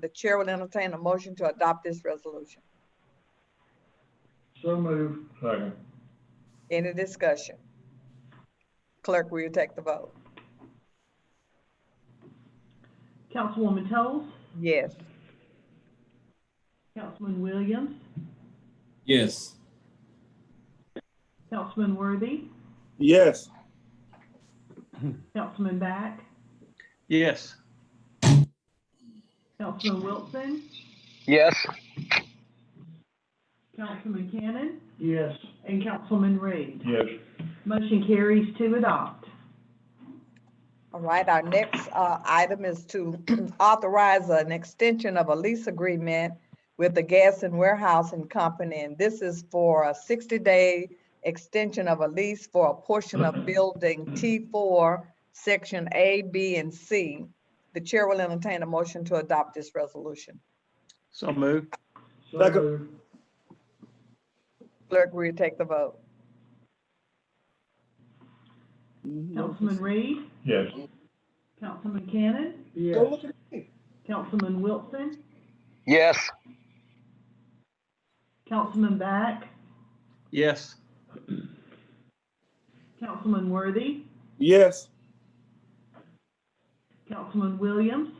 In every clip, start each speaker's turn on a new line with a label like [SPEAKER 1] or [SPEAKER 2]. [SPEAKER 1] The chair will entertain a motion to adopt this resolution.
[SPEAKER 2] So moved. Second.
[SPEAKER 1] Any discussion? Clerk, will you take the vote?
[SPEAKER 3] Councilwoman Toles,
[SPEAKER 1] Yes.
[SPEAKER 3] Councilman Williams,
[SPEAKER 4] yes,
[SPEAKER 3] Councilman Worthy,
[SPEAKER 5] yes,
[SPEAKER 3] Councilman Back,
[SPEAKER 6] yes,
[SPEAKER 3] Councilman Wilson,
[SPEAKER 7] yes,
[SPEAKER 3] Councilman Cannon,
[SPEAKER 2] Yes.
[SPEAKER 3] and Councilman Reed.
[SPEAKER 2] Yes.
[SPEAKER 3] Motion carries to adopt.
[SPEAKER 1] All right, our next uh, item is to authorize an extension of a lease agreement with the Gas and Warehousing Company, and this is for a 60-day extension of a lease for a portion of Building T4, Section A, B, and C. The chair will entertain a motion to adopt this resolution.
[SPEAKER 6] so moved,
[SPEAKER 2] So
[SPEAKER 5] Second.
[SPEAKER 2] moved.
[SPEAKER 1] Clerk, will you take the vote?
[SPEAKER 3] Councilman Reed,
[SPEAKER 2] Yes.
[SPEAKER 3] Councilman Cannon,
[SPEAKER 2] Yes.
[SPEAKER 3] Councilman Wilson,
[SPEAKER 7] yes,
[SPEAKER 3] Councilman Back,
[SPEAKER 6] yes,
[SPEAKER 3] Councilman Worthy,
[SPEAKER 5] yes,
[SPEAKER 3] Councilman Williams,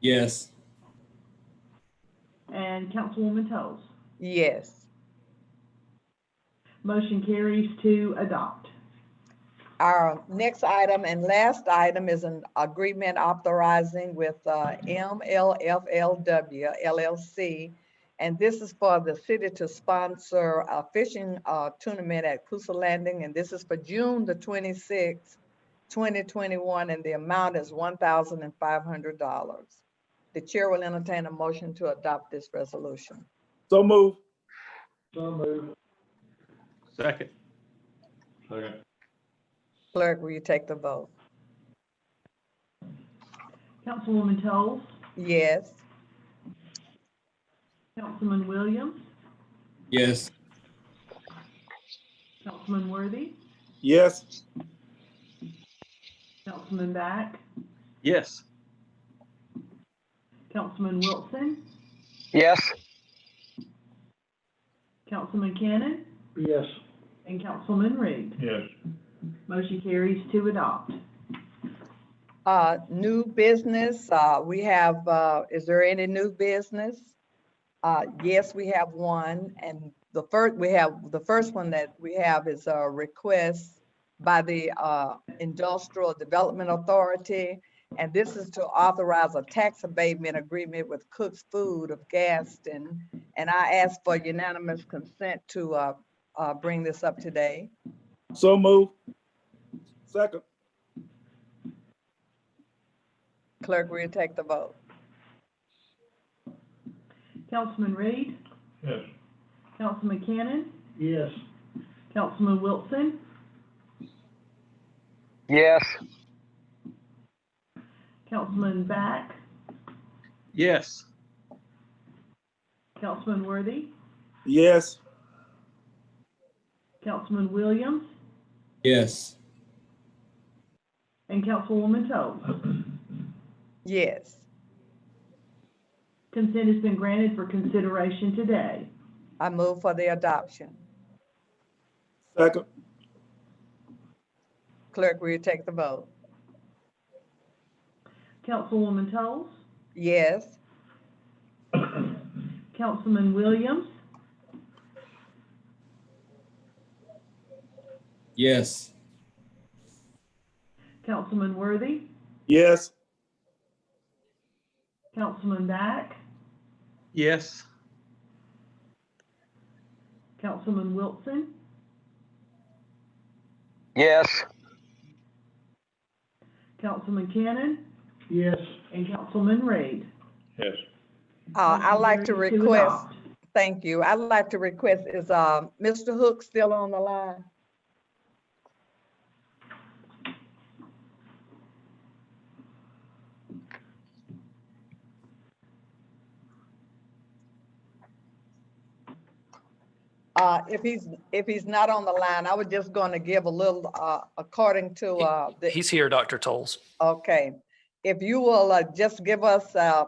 [SPEAKER 4] yes,
[SPEAKER 3] and Councilwoman Toles.
[SPEAKER 1] Yes.
[SPEAKER 3] Motion carries to adopt.
[SPEAKER 1] Our next item and last item is an agreement authorizing with uh, MLFLW LLC. And this is for the city to sponsor a fishing uh, tournament at Coosa Landing. And this is for June the 26th, 2021, and the amount is $1,500. The chair will entertain a motion to adopt this resolution.
[SPEAKER 5] so move,
[SPEAKER 2] So moved.
[SPEAKER 6] second,
[SPEAKER 2] Second.
[SPEAKER 1] Clerk, will you take the vote?
[SPEAKER 3] Councilwoman Toles,
[SPEAKER 1] Yes.
[SPEAKER 3] Councilman Williams,
[SPEAKER 4] yes,
[SPEAKER 3] Councilman Worthy,
[SPEAKER 5] yes,
[SPEAKER 3] Councilman Back,
[SPEAKER 6] yes,
[SPEAKER 3] Councilman Wilson,
[SPEAKER 7] yes,
[SPEAKER 3] Councilman Cannon,
[SPEAKER 2] Yes.
[SPEAKER 3] and Councilman Reed.
[SPEAKER 2] Yes.
[SPEAKER 3] Motion carries to adopt.
[SPEAKER 1] Uh, new business, uh, we have, uh, is there any new business? Uh, yes, we have one, and the first, we have, the first one that we have is a request by the, uh, Industrial Development Authority, and this is to authorize a tax abatement agreement with Cook's Food of Gaston. And I ask for unanimous consent to, uh, uh, bring this up today.
[SPEAKER 5] so move. Second,
[SPEAKER 1] Clerk, will you take the vote?
[SPEAKER 3] Councilman Reed,
[SPEAKER 2] Yes.
[SPEAKER 3] Councilman Cannon,
[SPEAKER 2] Yes.
[SPEAKER 3] Councilman Wilson,
[SPEAKER 7] yes,
[SPEAKER 3] Councilman Back,
[SPEAKER 6] yes,
[SPEAKER 3] Councilman Worthy,
[SPEAKER 5] yes,
[SPEAKER 3] Councilman Williams,
[SPEAKER 4] yes,
[SPEAKER 3] and Councilwoman Toles.
[SPEAKER 1] Yes.
[SPEAKER 3] Consent has been granted for consideration today.
[SPEAKER 1] I move for the adoption.
[SPEAKER 5] second,
[SPEAKER 1] Clerk, will you take the vote?
[SPEAKER 3] Councilwoman Toles,
[SPEAKER 1] Yes,
[SPEAKER 3] Councilman Williams,
[SPEAKER 4] yes,
[SPEAKER 3] Councilman Worthy,
[SPEAKER 5] yes,
[SPEAKER 3] Councilman Back,
[SPEAKER 6] yes,
[SPEAKER 3] Councilman Wilson,
[SPEAKER 7] yes,
[SPEAKER 3] Councilman Cannon,
[SPEAKER 2] Yes.
[SPEAKER 3] and Councilman Reed.
[SPEAKER 2] Yes.
[SPEAKER 1] uh, I'd like to
[SPEAKER 3] Motion carries
[SPEAKER 1] request,
[SPEAKER 3] adopt.
[SPEAKER 1] thank you, I'd like to request, is, uh, Mr. Hook still on the line? Uh, if he's, if he's not on the line, I was just gonna give a little, uh, according to, uh, the
[SPEAKER 8] He's here, Dr. Tolles.
[SPEAKER 1] Okay, if you will uh, just give us uh,